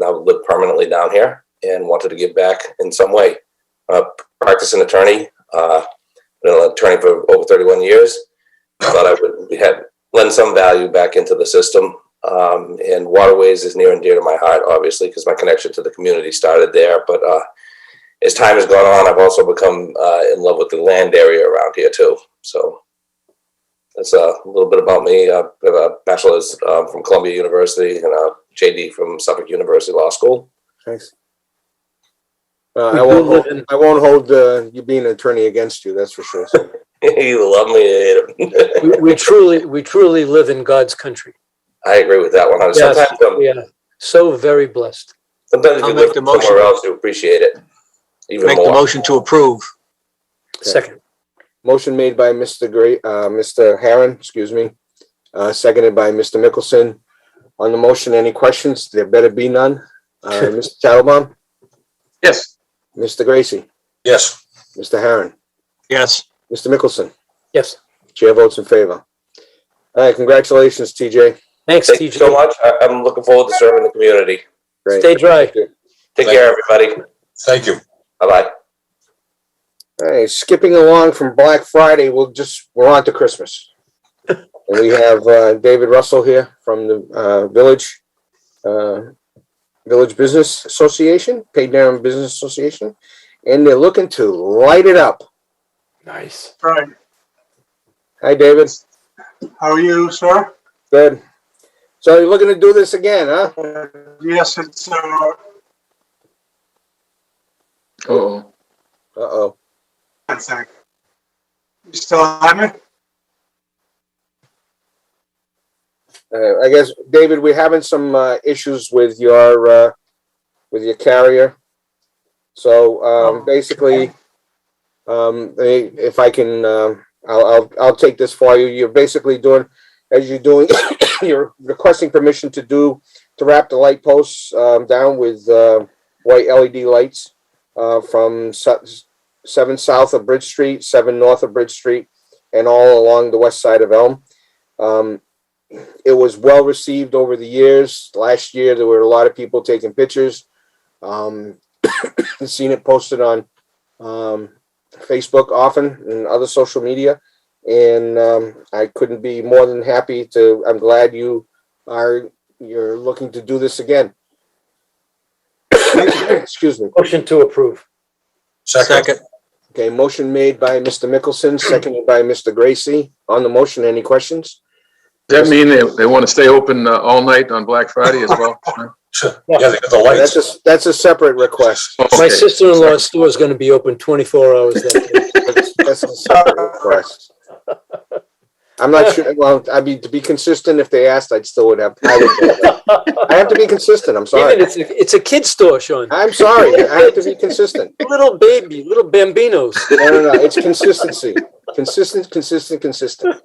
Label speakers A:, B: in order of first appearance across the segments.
A: now live permanently down here and wanted to give back in some way. Uh, practicing attorney, uh, been an attorney for over 31 years. Thought I would had lend some value back into the system. Um, and waterways is near and dear to my heart, obviously, because my connection to the community started there. But uh, as time has gone on, I've also become uh, in love with the land area around here too. So that's uh, a little bit about me. Uh, I have a bachelor's um, from Columbia University and a JD from Suffolk University Law School.
B: Thanks. Uh, I won't, hold- I won't hold, uh, you being an attorney against you, that's for sure.
A: you love me, you hate 'em.
C: We- We truly, we truly live in God's country.
A: I agree with that one.
C: Yes,
A: Sometimes, um,
C: We are so very blessed.
A: sometimes if
D: I'll
A: you
D: make
A: live
D: the motion.
A: somewhere else, you appreciate it even
D: Make
A: more.
D: the motion to approve.
C: Second,
B: Motion made by Mr. Gray, uh, Mr. Harron, excuse me, uh, seconded by Mr. Mickelson. On the motion, any questions? There better be none. Uh, Mr. Tattelbaum,
D: Yes.
B: Mr. Gracie,
E: Yes,
B: Mr. Harron,
D: Yes.
B: Mr. Mickelson,
C: yes.
B: chair votes in favor. All right, congratulations, TJ.
C: Thanks,
A: Thank you so
C: TJ.
A: much. I- I'm looking forward to serving the community.
B: Great.
C: Stay dry.
A: Take care, everybody.
E: thank you.
A: Bye bye.
B: Hey, skipping along from Black Friday, we'll just, we're on to Christmas. And we have, uh, David Russell here from the, uh, Village, uh, Village Business Association, Paid Down Business Association, and they're looking to light it up.
C: Nice.
F: Right.
B: Hi, David.
F: How are you, sir?
B: Good. So you're looking to do this again, huh?
F: Uh, Yes, it's, uh,
G: Oh,
B: Uh-oh.
F: one sec. You still on me?
B: Uh, I guess, David, we're having some, uh, issues with your, uh, with your carrier. So, um, basically, um, they, if I can, um, I'll, I'll, I'll take this for you. You're basically doing, as you're doing, you're requesting permission to do, to wrap the light posts, um, down with, uh, white LED lights, uh, from se- seven south of Bridge Street, seven north of Bridge Street, and all along the west side of Elm. Um, it was well received over the years. Last year, there were a lot of people taking pictures. Um, seen it posted on um, Facebook often and other social media. And um, I couldn't be more than happy to. I'm glad you are. You're looking to do this again. Excuse me.
C: Motion to approve.
E: Second,
B: Okay, motion made by Mr. Mickelson, seconded by Mr. Gracie. On the motion, any questions?
G: does that mean they, they want to stay open uh, all night on Black Friday as well?
E: yeah, they got the
B: That's
E: lights.
B: a, that's a separate request.
C: My
G: Okay.
C: sister-in-law's store is going to be open 24 hours that day.
B: That's a separate request. I'm not sure, well, I mean, to be consistent, if they asked, I'd still would have. I would- I have to be consistent, I'm
C: Even
B: sorry.
C: it's, a- it's a kid store, Sean.
B: I'm sorry, I have to be consistent.
C: Little baby, little bambinos.
B: No, no, no, it's consistency. Consistent, consistent, consistent.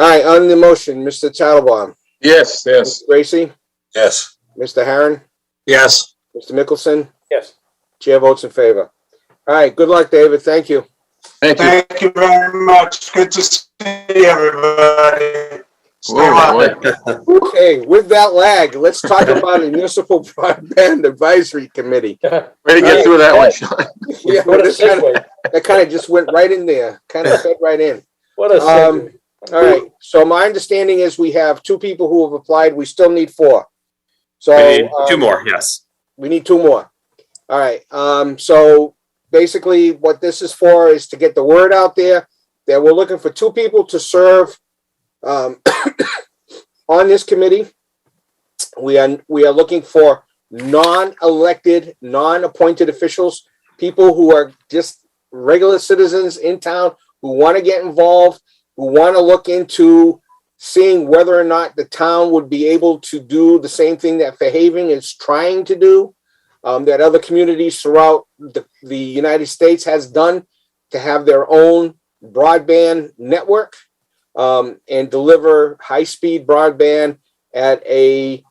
B: All right, on the motion, Mr. Tattelbaum,
G: Yes, yes.
B: Mr. Gracie,
E: Yes,
B: Mr. Harron,
D: Yes.
B: Mr. Mickelson,
C: Yes.
B: chair votes in favor. All right, good luck, David, thank you.
G: Thank you.
F: Thank you very much. Good to see everybody. Stay
G: Whoa,
F: on.
G: boy.
B: Okay, with that lag, let's talk about a municipal broadband advisory committee.
G: Way to get through that one, Sean.
B: Yeah,
C: What a
B: this kinda-
C: segue.
B: that kind of just went right in there, kind of fed right in.
C: What a
B: Um,
C: segue.
B: All right, so my understanding is we have two people who have applied, we still need four. So.
H: We need two
B: um,
H: more, yes.
B: We need two more. All right, um, so basically what this is for is to get the word out there that we're looking for two people to serve, um, on this committee. We are, we are looking for non-elected, non-appointed officials, people who are just regular citizens in town who want to get involved, who want to look into seeing whether or not the town would be able to do the same thing that Fairhaven is trying to do, um, that other communities throughout the, the United States has done to have their own broadband network um, and deliver high-speed broadband at a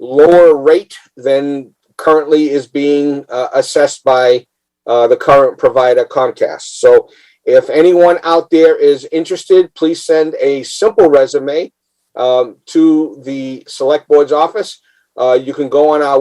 B: lower rate than currently is being uh, assessed by uh, the current provider Comcast. So if anyone out there is interested, please send a simple resume um, to the select board's office. Uh, you can go on our